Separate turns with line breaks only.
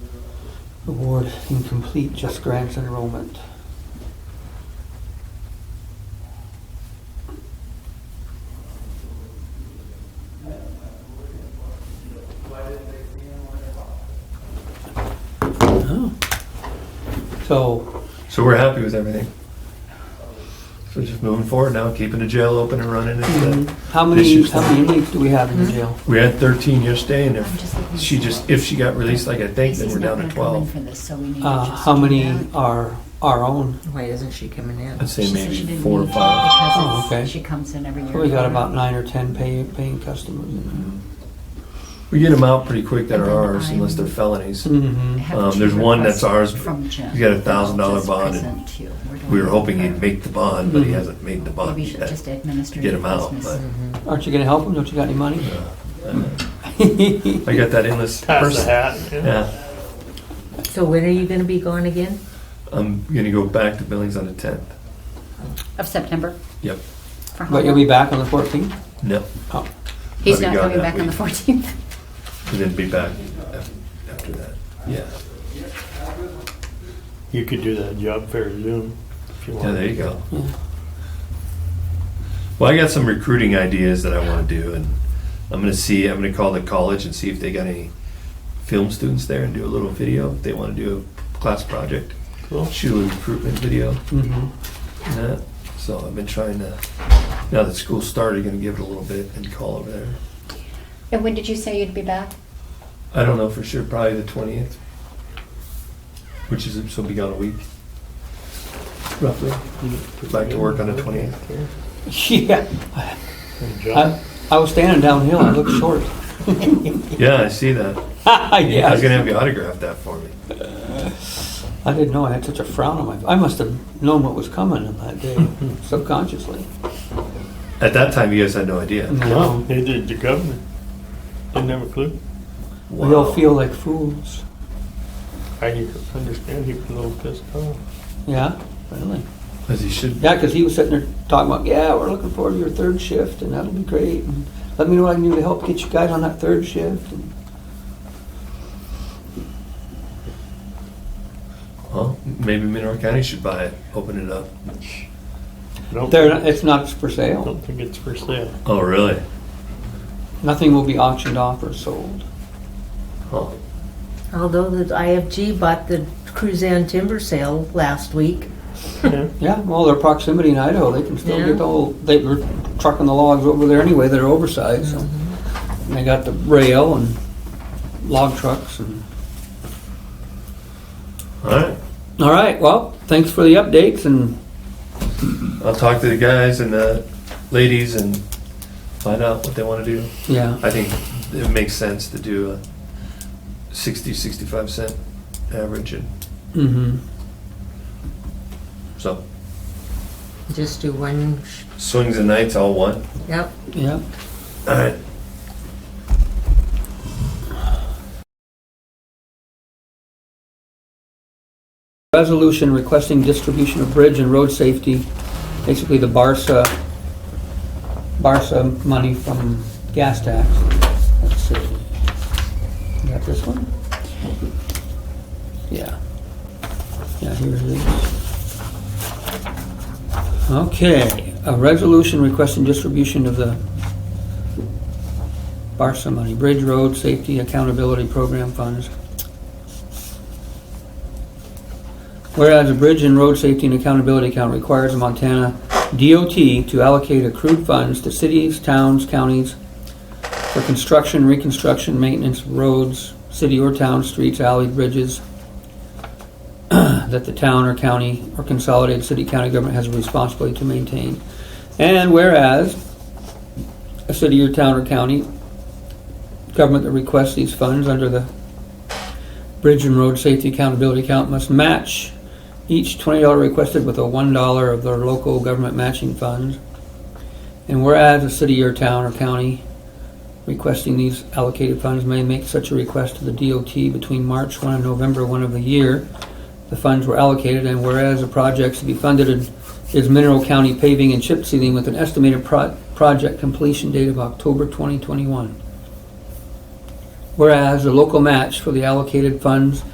Award incomplete, just grants enrollment. Oh. So,
So we're happy with everything. So just moving forward now, keeping the jail open and running.
mm,
Mm-hmm.
And, uh,
how many,
Issues.
how many inmates do we have in the jail?
we had 13 yesterday, and if she just if she got released, like I think, then
Casey's
we're
not
down to
gonna come in
12.
for this, so we need to
Uh,
just
how
do
many
that.
are our own?
Why isn't she coming in?
I'd
She
say
said she
maybe
didn't
four or
need
five.
because
Oh,
it's-
okay.
She comes in every year.
We got about nine or 10 pay- paying customers in
We get them out pretty quick that are
And then
ours,
I'm-
unless they're felonies.
there. Mm-hmm.
I have
Um,
two
there's one
requests
that's ours.
From Jim.
He's got a $1,000
Just
bond, and
present to you. We're doing
We were hoping
that.
he'd make the bond, but he
Mhm.
hasn't made the bond
Mm-hmm. Maybe you should
yet.
just administer
get
your
him out,
business.
but-
Mm-hmm.
Aren't you gonna help them? Don't you got any money?
I got that endless
Pass the
person.
hat. Yeah.
Yeah,
So when are you gonna be gone again?
I'm gonna go back to Billings on the 10th.
Of September.
Yep.
For how
But you'll
long?
be back on the fourteenth?
No,
Oh,
He's
I'll be
not
gone
coming
that
back on the
week.
14th.
and then be back af- after that. Yeah.
You could do that job fair Zoom if you want.
Yeah, there you go.
yeah.
Well, I got some recruiting ideas that I want to do, and I'm gonna see. I'm gonna call the college and see if they got any film students there and do a little video. If they want to do a class project,
Cool.
shoot a little recruitment video.
Mm-hmm.
and that. So I've been trying to. Now that school started, gonna give it a little bit and call over there.
And when did you say you'd be back?
I don't know for sure. Probably the twentieth, which is so be gone a week, roughly. Back to work on the twentieth.
Yeah, I, I was standing downhill, I looked short.
Yeah, I see that. Yeah, I was gonna
Yes,
have you autograph that for me.
I didn't know I had such a frown on my, I must have known what was coming on that day subconsciously.
At that time, you guys had no idea.
No,
No, neither did the governor. Didn't have a clue.
we all
Wow.
feel like fools.
I understand he was a little pissed off.
Yeah, really.
As you should.
Yeah, because he was sitting there talking about, yeah, we're looking forward to your third shift and that'll be great. And Let me know what I can do to help get you guys on that third shift. And
Well, maybe Mineral County should buy it, open it up.
I don't,
They're, not- it's not for
I
sale.
don't think it's for sale.
Oh, really?
Nothing will be auctioned off or sold.
Huh.
Although the IFG bought the Cruzan timber sale last week.
Yeah.
Yeah, well, their proximity in Idaho, they can still
Yeah.
get the whole, they were trucking the logs over there anyway, they're oversized, so. And they got the rail and log trucks and,
All right.
all right, well, thanks for the updates and,
I'll talk to the guys and the ladies and find out what they want to do.
yeah,
I think it makes sense to do a 60, 65 cent average. And
mm-hmm,
so
Just do one, sh-
swings and nights all one.
yep.
yeah.
All right.
Resolution requesting distribution of bridge and road safety, basically the Barca, Barca money from gas tax. Let's see. You Got this one? Yeah. Yeah, here it is. Okay, a resolution requesting distribution of the Barca money, bridge, road, safety, accountability program funds. Whereas the Bridge and Road Safety and Accountability Account requires the Montana DOT to allocate accrued funds to cities, towns, counties for construction, reconstruction, maintenance, of roads, city or town, streets, alley, bridges, that the town or county or consolidated city county government has a responsibility to maintain. And whereas a city or town or county government that requests these funds under the Bridge and Road Safety Accountability Account must match each $20 requested with a $1 of their local government matching funds. And whereas a city or town or county requesting these allocated funds may make such a request to the DOT between March 1 and November 1 of the year the funds were allocated, and whereas the projects to be funded is Mineral County paving and chip sealing with an estimated pro- project completion date of October 2021. Whereas the local match for the allocated funds